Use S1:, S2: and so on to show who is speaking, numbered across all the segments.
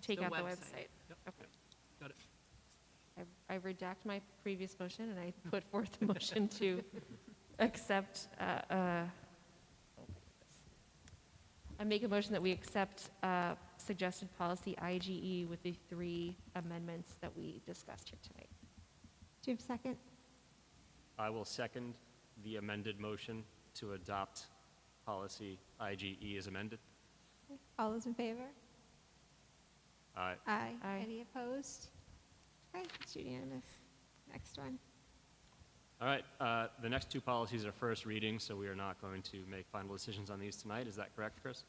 S1: take
S2: The
S1: out the
S2: website.
S1: website.
S3: Yep,
S1: Okay.
S3: yep. Got it.
S1: I I redact my previous motion, and I put forth a motion to accept, uh, uh, I make a motion that we accept uh, suggested policy IGE with the three amendments that we discussed here tonight.
S4: Do you have a second?
S3: I will second the amended motion to adopt policy IGE as amended.
S4: All those in favor?
S3: Aye.
S4: Aye.
S1: Aye.
S4: Any opposed? Okay, it's unanimous. Next one.
S3: All right, uh, the next two policies are first reading, so we are not going to make final decisions on these tonight. Is that correct, Chris?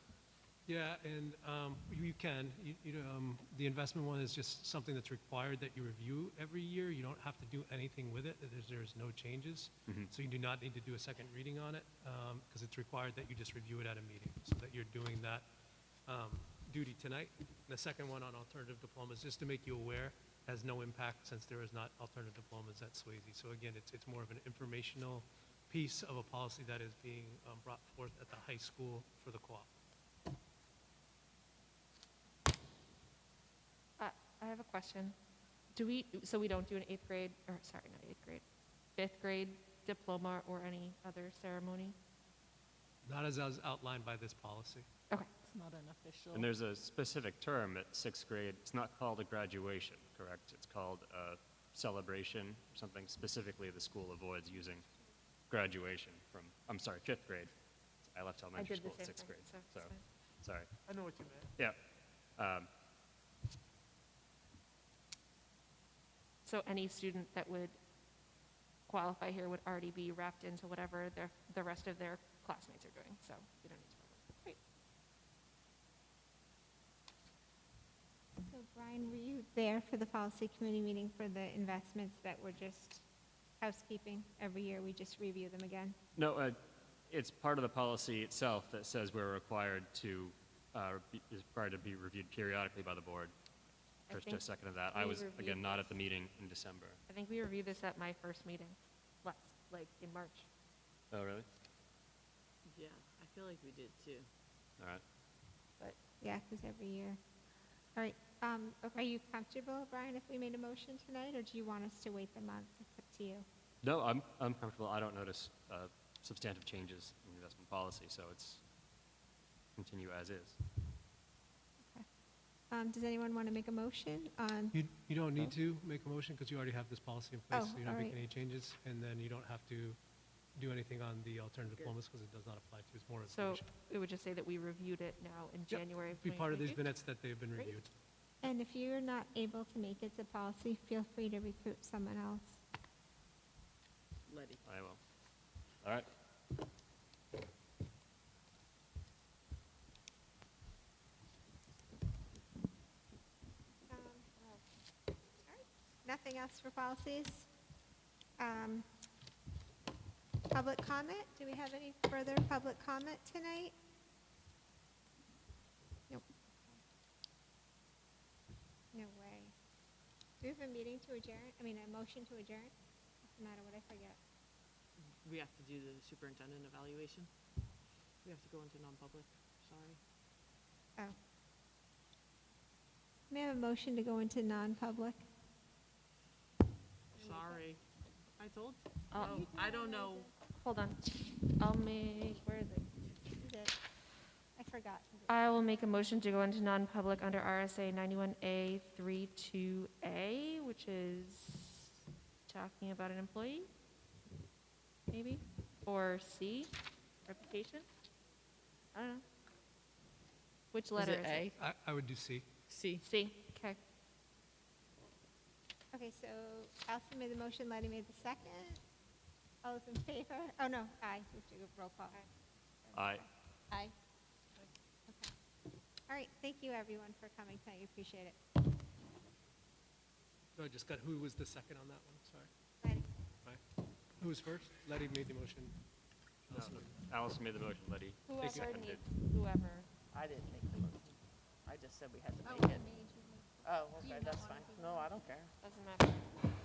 S5: Yeah, and um, you you can, You- you, um, the investment one is just something that's required that you review every year. You don't have to do anything with it, there's, there's no changes. So you do not need to do a second reading on it, because it's required that you just review it at a meeting, so that you're doing that um, duty tonight. And the second one on alternative diplomas, just to make you aware, has no impact since there is not alternative diplomas at Swayze. So again, it's, it's more of an informational piece of a policy that is being um, brought forth at the high school for the co-op.
S1: I Uh, I have a question. Do we, so we don't do an eighth grade, or sorry, not eighth grade, fifth grade diploma or any other ceremony?
S5: Not as as outlined by this policy.
S1: Okay,
S2: It's not an official.
S3: And there's a specific term at sixth grade. It's not called a graduation, correct? It's called a celebration, something specifically the school avoids using graduation from, I'm sorry, fifth grade. I left
S1: I
S3: elementary
S1: did the
S3: school
S1: same
S3: at
S1: thing.
S3: sixth grade,
S1: so it's
S3: so,
S1: fine.
S3: sorry.
S6: I know what you meant.
S3: Yeah. Um,
S1: So any student that would qualify here would already be wrapped into whatever their, the rest of their classmates are doing, so we don't need to. worry about it. Great.
S4: So Brian, were you there for the policy committee meeting for the investments that were just housekeeping? Every year, we just review them again?
S3: No, uh, it's part of the policy itself that says we're required to, uh, be- is required to be reviewed periodically by the board.
S1: I
S3: Chris
S1: think
S3: just seconded that. I
S1: we
S3: was,
S1: reviewed
S3: again, not at the
S1: this.
S3: meeting in December.
S1: I think we reviewed this at my first meeting, last, like, in March.
S3: Oh, really?
S2: Yeah, I feel like we did too.
S3: All right.
S4: Yeah, because every year. All right, um, are you comfortable, Brian, if we made a motion tonight, or do you want us to wait the month? It's up to you.
S3: No, I'm, I'm comfortable. I don't notice uh, substantive changes in investment policy, so it's continue as is.
S4: Um, does anyone want to make a motion on,
S5: You, you don't need to make a motion because you already have this policy in place.
S4: Oh,
S5: so You're not
S4: all
S5: making
S4: right.
S5: any changes, and then you don't have to do anything on the alternative diplomas because it does not apply to you. It's more
S1: So
S5: information.
S1: it would just say that we reviewed it now in
S5: Yep,
S1: January of
S5: Be part of these
S1: 2022.
S5: minutes that they've been
S1: Great.
S5: reviewed.
S4: and if you're not able to make it to policy, feel free to recruit someone else.
S2: Letty.
S3: I will. All right.
S4: Um, all right. Nothing else for policies? Um, Public comment? Do we have any further public comment tonight? Nope. No way. Do we have a meeting to adjourn? I mean, a motion to adjourn? Doesn't matter what I forget.
S2: We have to do the superintendent evaluation. We have to go into non-public, sorry.
S4: Oh. May I have a motion to go into non-public?
S2: Sorry. I told,
S1: I'll-
S2: oh, I don't know.
S1: Hold on, I'll make, where is it?
S4: Is it- I forgot.
S1: I will make a motion to go into non-public under RSA 91A 32A, which is talking about an employee, maybe, or C, reputation? I don't know. Which letter is it?
S5: I, I would do C.
S2: C.
S1: C, okay.
S4: Okay, so Allison made the motion, Letty made the second. All those in favor? Oh, no, aye. We have to do a roll call.
S3: Aye.
S4: Aye. Okay. All right, thank you, everyone, for coming tonight. We appreciate it.
S5: No, I just got, who was the second on that one? Sorry.
S4: Letty,
S5: Aye. Who was first? Letty made the motion. Allison made
S3: Allison made the motion, Letty.
S1: Whoever
S3: seconded.
S1: needs, whoever.
S7: I didn't make the motion. I just said we had to make it. Oh, okay, that's Oh, fine. No, I don't care.
S1: Doesn't matter.